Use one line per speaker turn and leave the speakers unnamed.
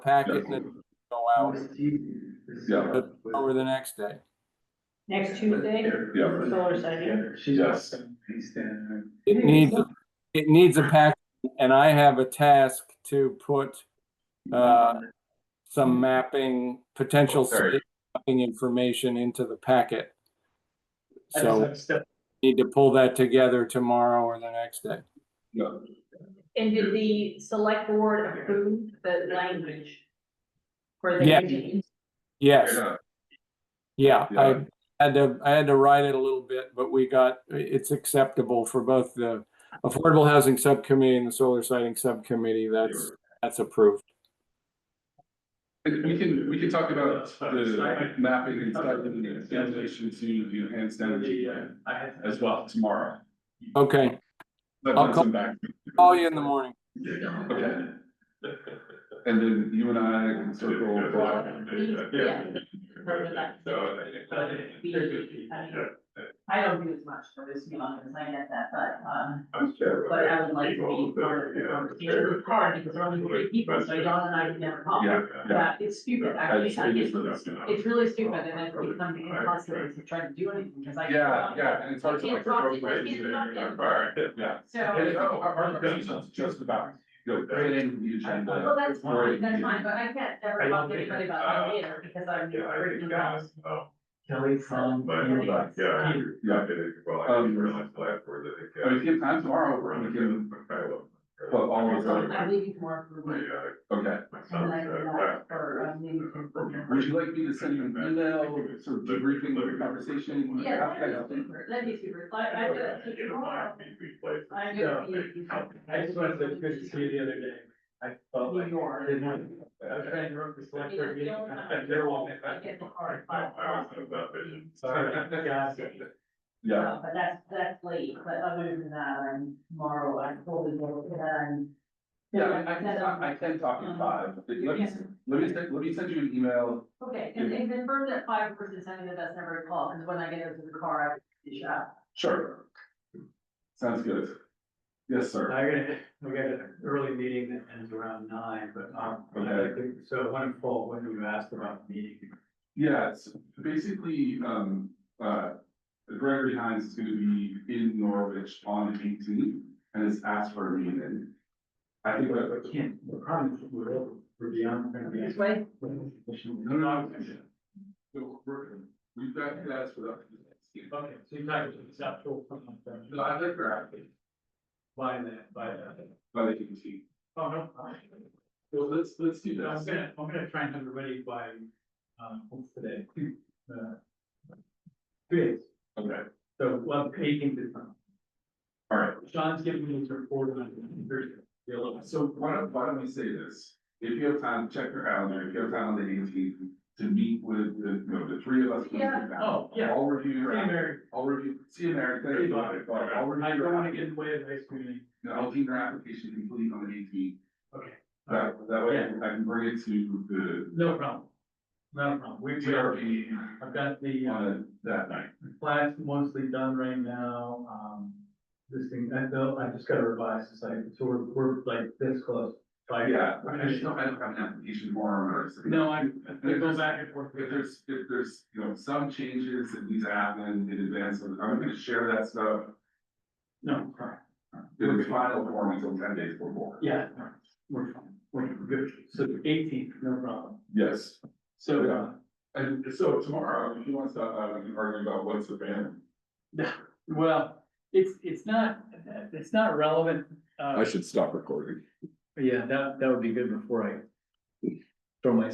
packet and then go out
Yeah,
over the next day.
Next Tuesday,
yeah,
solar sighting.
yes,
It needs, it needs a pack, and I have a task to put uh, some mapping, potential
Sorry.
site mapping information into the packet.
I just
So
have step-
need to pull that together tomorrow or the next day.
yeah.
And did the select board approve the language? For the.
Yeah.
meeting?
Yes,
Yeah.
yeah,
Yeah.
I had to, I had to write it a little bit, but we got, it's acceptable for both the Affordable Housing Subcommittee and the Solar Siting Subcommittee. That's, that's approved.
And We can, we can talk about the mapping and stuff and the
Translation
translation to the enhanced energy
the, uh, I had-
as well tomorrow.
Okay,
But
I'll
that's
call-
in back.
call you in the morning.
Okay. And then you and I can circle back.
Yeah. Remember that.
I don't do as much for this, you know, because I get that, but, um, but I would like to be part of the conversation with Karen, because we're only three people, so Dawn and I can never talk.
Yeah, yeah.
Yeah, it's stupid,
I
actually,
just- I just-
it's, it's really stupid, and then it becomes impossible to try to do anything, because I.
Yeah, yeah, and it's hard to
You
like.
can't talk,
throw
you
away
can't talk.
the- Yeah. And oh,
So,
our, our conversation's just about, you know, creating the agenda.
well, that's fine,
creating-
that's fine, but I can't ever
I don't
talk to
think-
anybody about it later, because I'm.
oh,
Kelly from.
But,
Yeah.
yeah,
Yeah.
yeah, well, I didn't realize the last word that they
I
got.
mean, Um, if you have time tomorrow, we're gonna give, put all of
So
our,
I'm leaving tomorrow for
My,
work,
uh,
okay.
my son's, uh,
and I do that for, um, leaving for work.
Would you like me to send you an email, sort of debriefing the conversation?
Yeah, that'd be super, that'd be super, I, I do that
uh,
to tomorrow. I know.
I just wanted to, say good to see you the other day. I felt like.
You are.
I didn't want to- I was trying to work the select board meeting, and I kept their wall.
I get the card,
I
but,
always have that vision.
Sorry, guys.
Yeah,
uh, but that's, that's late, but other than that, I'm tomorrow, I'm fully booked and.
yeah, I I can, talk- I can talk in five, let me, let me, send- let me send you an email,
Okay, and, and confirm that five person sending the best number to call, because when I get into the car, I finish up.
sure. Sounds good. Yes, sir.
I gotta, we got an early meeting that ends around nine, but, um,
Okay.
so when I'm full, when you asked about the meeting.
Yeah, it's basically, um, uh, Gregory Hines is gonna be in Norwich on the eighteenth and has asked for a meeting. I think
But
that,
we can't, the problem is we're, over- we're beyond, we're gonna be.
way?
no, no, no, we're- we've got that's for that.
Okay, so you're talking to the South Shore.
No, I think we're active
By that, by that.
by the eighteenth.
Oh, no. I-
So let's, let's do
I'm
this.
gonna, I'm gonna try and have it ready by, um, what's today? Uh, Two days,
Okay,
so we'll have eighteen this time.
all right.
Sean's giving me his report on Thursday. Be a little-
So why don't, why don't we say this? If you have time, check your calendar. If you have time on the eighteenth to meet with the, you know, the three of us. when we get back.
Oh, yeah.
I'll review
Hey,
your, app-
Mary,
I'll review, see you, Mary. Thank
Hey,
you.
Bob.
I'll review
I don't
your
wanna
app-
get in the way of the ice cream.
no, I'll keep your application complete on the eighteenth.
Okay.
That, that way
Yeah.
I can bring it to the
No problem. No problem. We, we are,
GRP
I've got the, uh,
on that night.
Flags mostly done right now, um, this thing, I know, I just gotta revise this, like, so we're, we're like this close. Like,
Yeah, I just don't, I don't have an application form or. something.
No, I, I go back and forth.
If there's, if there's, you know, some changes that needs to happen in advance, of- I'm gonna share that stuff.
No, sorry.
It'll be final form until ten days before.
yeah, no, we're fine, we're good, so eighteen, no problem.
Yes,
So, uh,
and so tomorrow, if you want to stop, uh, we can argue about what's the ban.
well, it's, it's not, it's not relevant, uh,
should stop recording.
yeah, that, that would be good before I throw my